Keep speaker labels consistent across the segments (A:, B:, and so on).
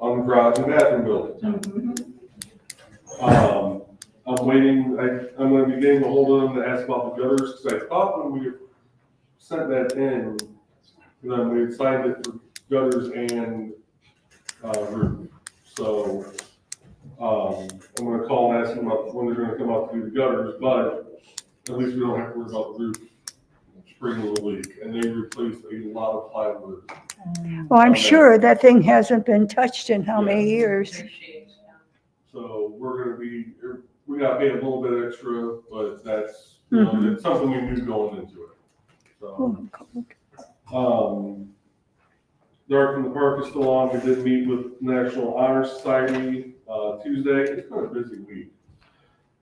A: on garage and bathroom building. Um, I'm waiting, I, I'm gonna be getting a hold of them to ask about the gutters, because I thought when we sent that in, then we had signed it for gutters and, uh, roof. So, um, I'm gonna call and ask them about when they're gonna come out to do the gutters, but at least we don't have to worry about the roof spring of the leak, and they replaced a lot of plywood.
B: Well, I'm sure that thing hasn't been touched in how many years?
A: So we're gonna be, er, we gotta pay a little bit extra, but that's, you know,
B: Mhm.
A: it's something we knew going into it. So,
B: Oh, cool.
A: um, the Art from the Park is still on. We did meet with National Honor Society, uh, Tuesday. It's been a busy week.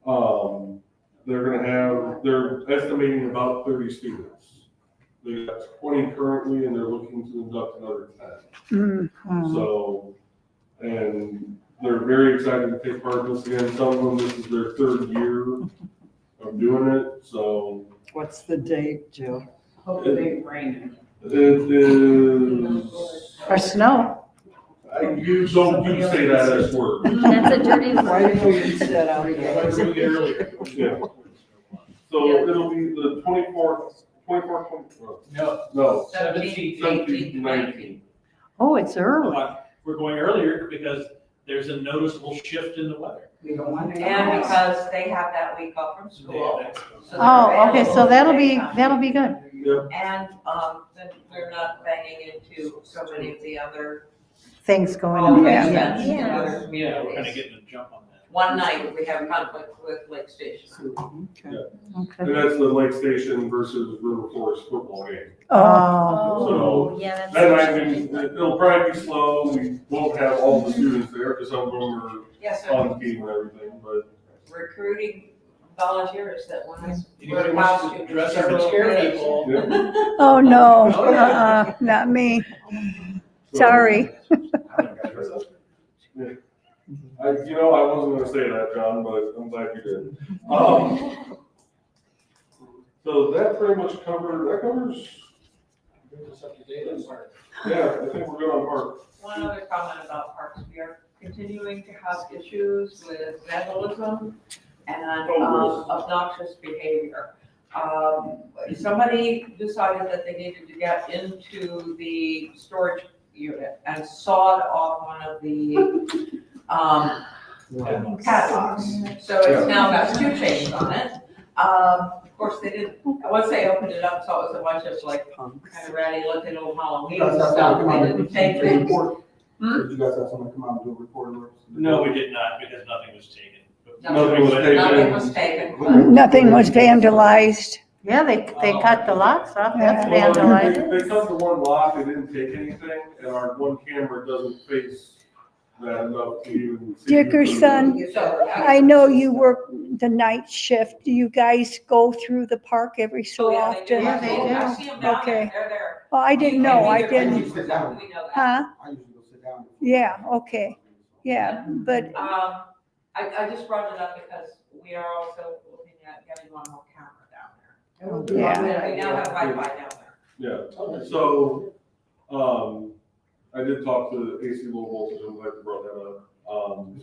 A: Um, they're gonna have, they're estimating about thirty students. They got twenty currently and they're looking to induct another ten.
B: Mm,
A: So, and they're very excited to take part in this again. Some of them, this is their third year of doing it, so
C: What's the date, Jill?
A: Hopefully
D: raining.
A: it is,
C: Or snow?
A: I- you don't, you say that as word.
E: That's a dirty
C: Why
E: word.
C: didn't we use that out
A: Like
C: there?
A: we did earlier. Yeah. So it'll be the twenty-fourth, twenty-fourth, twenty-fourth,
F: No,
A: no,
D: Seventeenth,
A: seventeenth,
D: eighteenth,
A: nineteenth.
D: nineteenth.
C: Oh, it's early.
F: uh, we're going earlier because there's a noticeable shift in the weather.
C: We don't want to.
D: And because they have that week off from school. so they're
C: Oh, okay, so
D: available
C: that'll be,
D: daytime.
C: that'll be good.
A: Yeah,
D: And, um, then we're not banging into so many of the other.
C: Things going
D: holiday
C: on.
B: Oh, yeah.
D: events in
E: Yeah.
D: other
F: Yeah, we're kind of
D: communities.
F: getting a jump on that.
D: One night, we have conflict with Lake Station.
C: Okay.
A: and that's the Lake Station versus River Forest football game.
C: Oh,
E: Oh, yeah,
A: Then I
E: that's.
A: mean, it'll probably be slow, we won't have all the students there, because some of them
D: Yes,
A: are on
F: Um,
D: so
A: the team and everything, but
D: recruiting volunteers that want us.
F: You know, wants to dress up and scare people.
A: yeah.
B: Oh, no, uh-uh, not me.
A: so-
B: Sorry.
A: I, you know, I wasn't gonna say that, John, but I'm glad you did. Um, so that pretty much covered, that covers, yeah, I think we're good on park.
D: One other comment about parks, we are continuing to have issues with vandalism and
A: Oh,
D: um, obnoxious behavior. Um, Somebody decided that they needed to get into the storage unit and sawed off one of the um, padlocks. So it's now got two chains on it. Um, Of course, they didn't, once they opened it up, saw it was a bunch of like kind of ratty looking old Halloween stuff. They didn't take it. Hmm?
G: Did you guys have someone come out and do a report? or-
F: No, we did not because nothing was taken. But
A: Nothing was taken.
D: Nothing was taken, but
B: Nothing was vandalized.
C: yeah, they, they cut the locks off. That's
A: Well, they-
C: vandalized.
A: They cut the one lock, they didn't take anything, and our one camera doesn't face that enough to even see.
B: Dickerson,
D: so.
B: I know you work the night shift. Do you guys go through the park every so
D: Yeah, they do.
B: often?
C: Yeah, they do.
D: I see them down there,
B: Okay.
D: they're there.
B: Well, I didn't know, I didn't,
D: We know that.
B: huh?
G: I usually go sit down.
B: Yeah, okay. Yeah, but,
D: Um, I, I just brought it up because we are also looking at getting one more camera down
C: Oh,
B: yeah.
D: there. We now have Wi-Fi down there.
A: Yeah, so, um, I did talk to AC Low Voltage, I'm glad you brought that up. Um,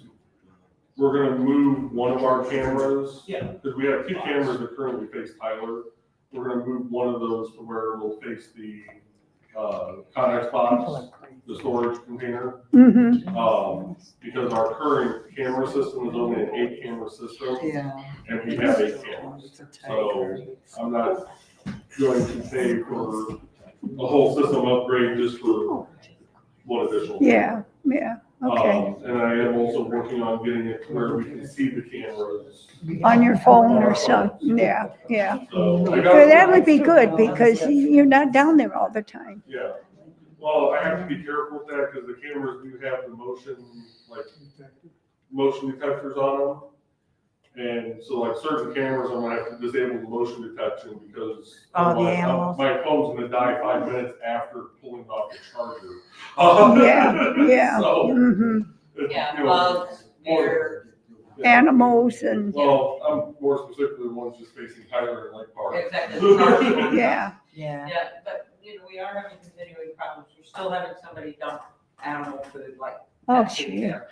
A: we're gonna move one of our cameras.
F: Yeah.
A: Because we have two cameras that currently face Tyler. We're gonna move one of those to where we'll face the, uh, Conex box, the storage container.
B: hmm
A: Um, because our current camera system is only an eight camera system,
C: Yeah.
A: and we have eight cameras. So- I'm not going to pay for a whole system upgrade just for one additional.
B: yeah, yeah, okay.
A: Um, And I am also working on getting it to where we can see the cameras,
C: Oh.
B: On your phone or something, yeah, yeah.
A: so. I
B: So
A: got-
B: that would be good because you're not down there all the time.
A: Yeah, well, I have to be careful with that, because the cameras do have the motion, like, motion detectors on them. And so like certain cameras, I'm gonna have to disable the motion detection, because.
C: Oh, the
A: otherwise, uh,
C: animals.
A: My phone's gonna die five minutes after pulling off the charger.
B: Yeah, yeah.
A: So,
B: hmm
A: it-
D: Yeah,
A: you know,
D: bugs, deer,
A: yeah.
B: Animals and,
A: Well, I'm more specifically the ones just facing Tyler and Lake Park.
D: exactly. Yeah,
B: yeah,
C: Yeah.
D: but, you know, we are having continuing problems. We're still having somebody dump animal food like
B: Oh,
D: that's in
B: gee.
D: there.